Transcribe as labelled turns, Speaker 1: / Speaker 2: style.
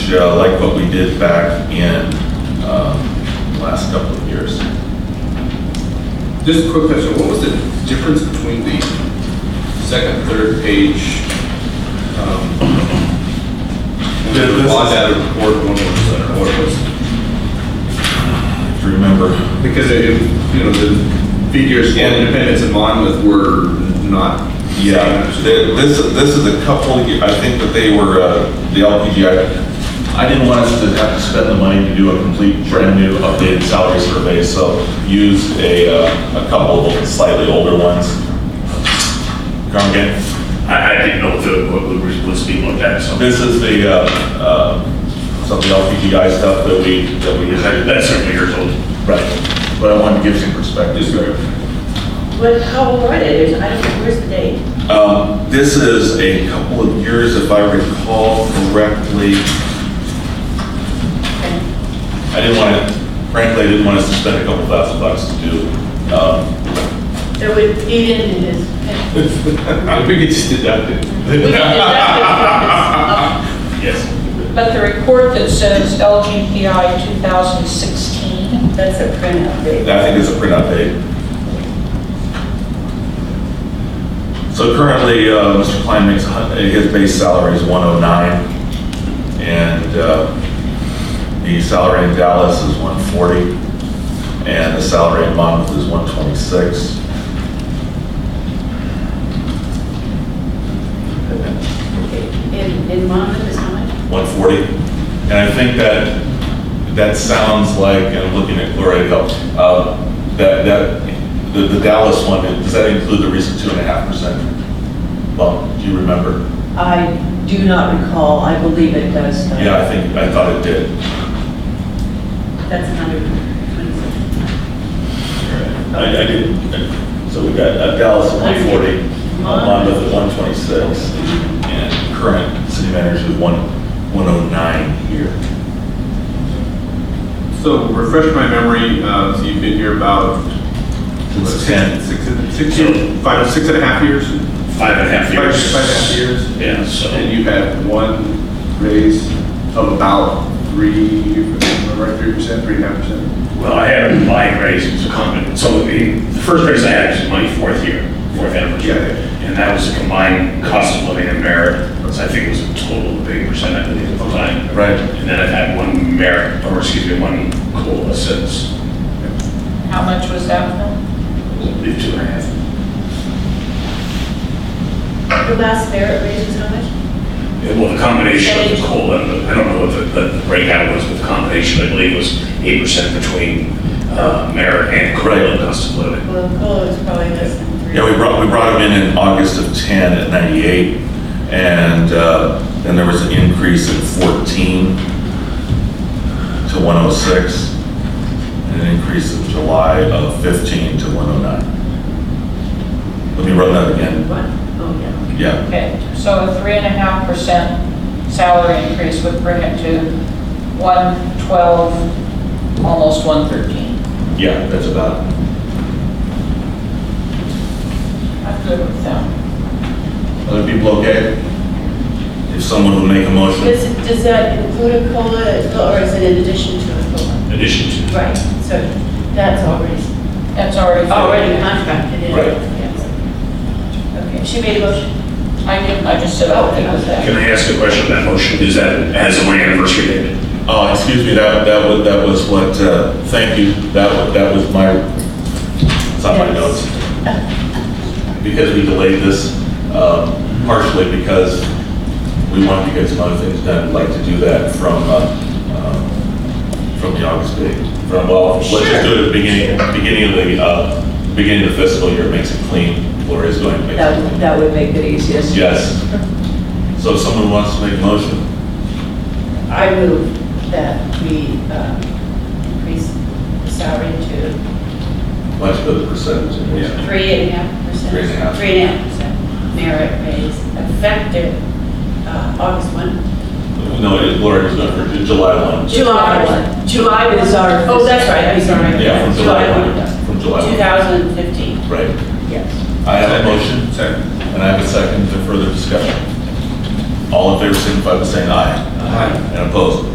Speaker 1: much uh, like what we did back in um, the last couple of years.
Speaker 2: Just a quick question, what was the difference between the second, third page? um,
Speaker 1: Yeah, this
Speaker 2: On
Speaker 1: is-
Speaker 2: that report, one was, I don't know what it was.
Speaker 1: If you remember,
Speaker 2: Because it, you know, the figures in Independence and Monmouth were not.
Speaker 1: yeah, th- this, this is a couple, of ye- I think that they were, uh, the LPGI, I didn't want us to have to spend the money to do a complete brand-new updated salary survey, so used a, uh, a couple of slightly older ones. Come again?
Speaker 3: I, I didn't know if it- what was, was being looked at, so.
Speaker 1: This is the, uh, uh, some of the LPGI stuff that we, that we had.
Speaker 3: That's certainly years old.
Speaker 1: Right, but I wanted to give some perspective.
Speaker 4: What, how old are they? There's, I don't know, where's the date?
Speaker 1: Um, This is a couple of years, if I recall correctly. I didn't want to, frankly, I didn't want us to spend a couple thousand bucks to do. um,
Speaker 4: So we, you didn't do this. We
Speaker 2: I think it's deducted.
Speaker 4: didn't do that.
Speaker 3: Yes.
Speaker 5: But the report that says LGPI 2016,
Speaker 4: That's a print update.
Speaker 1: I think it's a print update. So currently, uh, Mr. Klein makes, a hun- his base salary is 109, and uh, the salary in Dallas is 140, and the salary in Monmouth is 126.
Speaker 4: In, in Monmouth is how much?
Speaker 1: 140. And I think that, that sounds like, and I'm looking at Gloria Hill, uh, that, that, the the Dallas one, does that include the recent 2.5%? Well, do you remember?
Speaker 6: I do not recall, I believe it does.
Speaker 4: uh,
Speaker 6: though.
Speaker 1: Yeah, I think, I thought it did.
Speaker 4: That's 126.
Speaker 1: I, I did, so we got uh, Dallas at 140, Monmouth at 126, and current city manager is 1, 109 here.
Speaker 2: So refresh my memory, uh, so you've been here about.
Speaker 1: Since 10.
Speaker 2: Six, six, years, five, six and a half years?
Speaker 3: Five and a half
Speaker 2: Five-
Speaker 3: years.
Speaker 2: Five and a half years?
Speaker 3: Yeah, so.
Speaker 2: And you had one raise of about three, right, three percent, three and a half percent?
Speaker 3: Well, I had a line raise, it was a common, so the, the first raise I had was my fourth year, fourth anniversary.
Speaker 2: Yeah.
Speaker 3: And that was a combined cost of living and merit, so I think it was a total of eight percent, I believe, at the time.
Speaker 1: Right.
Speaker 3: And then I've had one merit, or excuse me, one COLA since,
Speaker 5: how much was that from?
Speaker 3: I believe, two and a half.
Speaker 4: The last merit raise is how much?
Speaker 3: Well, the combination of the COLA, and the- I don't know what the, the breakout was, but the combination, I believe, was eight percent between, uh, merit and COLA
Speaker 1: Right.
Speaker 3: and cost of living.
Speaker 4: Well, COLA is probably less than three.
Speaker 1: Yeah, we brought, we brought him in in August of 10 at 98, and uh, then there was an increase in 14 to 106, and an increase in July of 15 to 109. Let me run that again.
Speaker 4: What? Oh, yeah.
Speaker 1: Yeah,
Speaker 5: Okay, so a three and a half percent salary increase would bring it to 112, almost 113.
Speaker 1: yeah, that's about it.
Speaker 5: I'm good with that.
Speaker 1: Other people okay? If someone would make a motion.
Speaker 4: Does, does that include a COLA, or is it in addition to a COLA?
Speaker 3: In Addition to.
Speaker 4: Right, so that's already,
Speaker 5: That's already.
Speaker 4: already contracted in.
Speaker 1: Right.
Speaker 4: Yes. Okay, she made a motion.
Speaker 5: I didn't, I just said, I'll do with that.
Speaker 3: Can I ask a question on that motion? Is that as of my anniversary date?
Speaker 1: Oh, excuse me, that, that was, that was what, uh, thank you, that, wa- that was my, it's on my notes. Because we delayed this, uh, partially because we wanted to get some other things done, I'd like to do that from, uh, um, from the August date. From, well, let's just do it at the beginning, beginning of the, uh, beginning of the fiscal year, makes it clean, Gloria's going to make
Speaker 6: That
Speaker 1: it
Speaker 6: would-
Speaker 1: clean.
Speaker 6: that would make it easiest.
Speaker 1: Yes. So if someone wants to make a motion?
Speaker 4: I move that we um, increase the salary to
Speaker 1: Let's put the percentage in.
Speaker 2: Yeah.
Speaker 4: three and a half percent.
Speaker 1: Three and a half.
Speaker 4: Three and a half percent merit raise effective uh, August 1.
Speaker 1: No, it- Laura, it's not, for July 1.
Speaker 4: July 1. July was our. Oh, that's right, I'm sorry.
Speaker 1: Yeah, from July 1.
Speaker 4: one,
Speaker 1: From July 1.
Speaker 4: 2015.
Speaker 1: Right.
Speaker 6: Yes.
Speaker 1: I have a motion
Speaker 2: Second.
Speaker 1: and I have a second for further discussion. All in favor, signify by saying aye. Aye. And opposed?